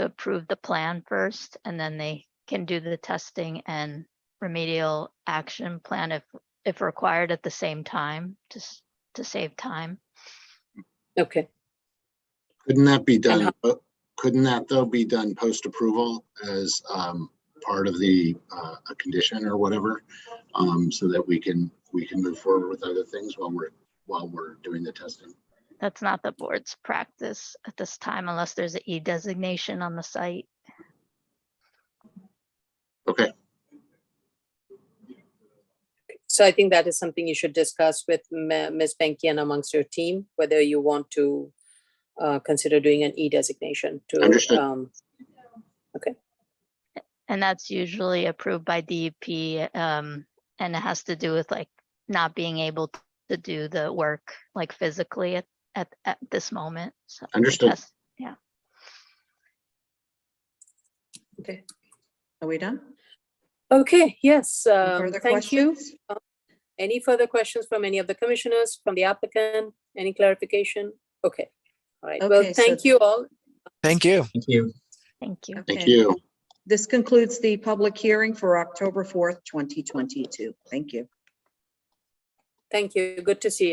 approve the plan first and then they can do the testing and remedial action plan if, if required at the same time, just to save time. Okay, Couldn't that be And done, uh, couldn't that though be done post-approval as um, part of the, uh, a condition or whatever? um, So that we can, we can move forward with other things while we're, while we're doing the testing. That's not the board's practice at this time unless there's an E designation on the site. Okay, so I think that is something you should discuss with Ma- Ms. Benkian amongst your team, whether you want to uh, consider doing an E designation to, Understood. um, And that's usually approved by DEP, um, and it has to do with like not being able t- to do the work like physically at, at, at this moment. So the Understood. test- Okay. Are we done? okay, yes, Any um, further thank you. questions? Any further questions from any of the commissioners, from the applicant, any clarification? Okay, all right, well, Okay, so- thank you all. Thank you. Thank you. Thank you. thank Okay. you. This concludes the public hearing for October 4th, 2022. Thank you. Thank you, good to see you.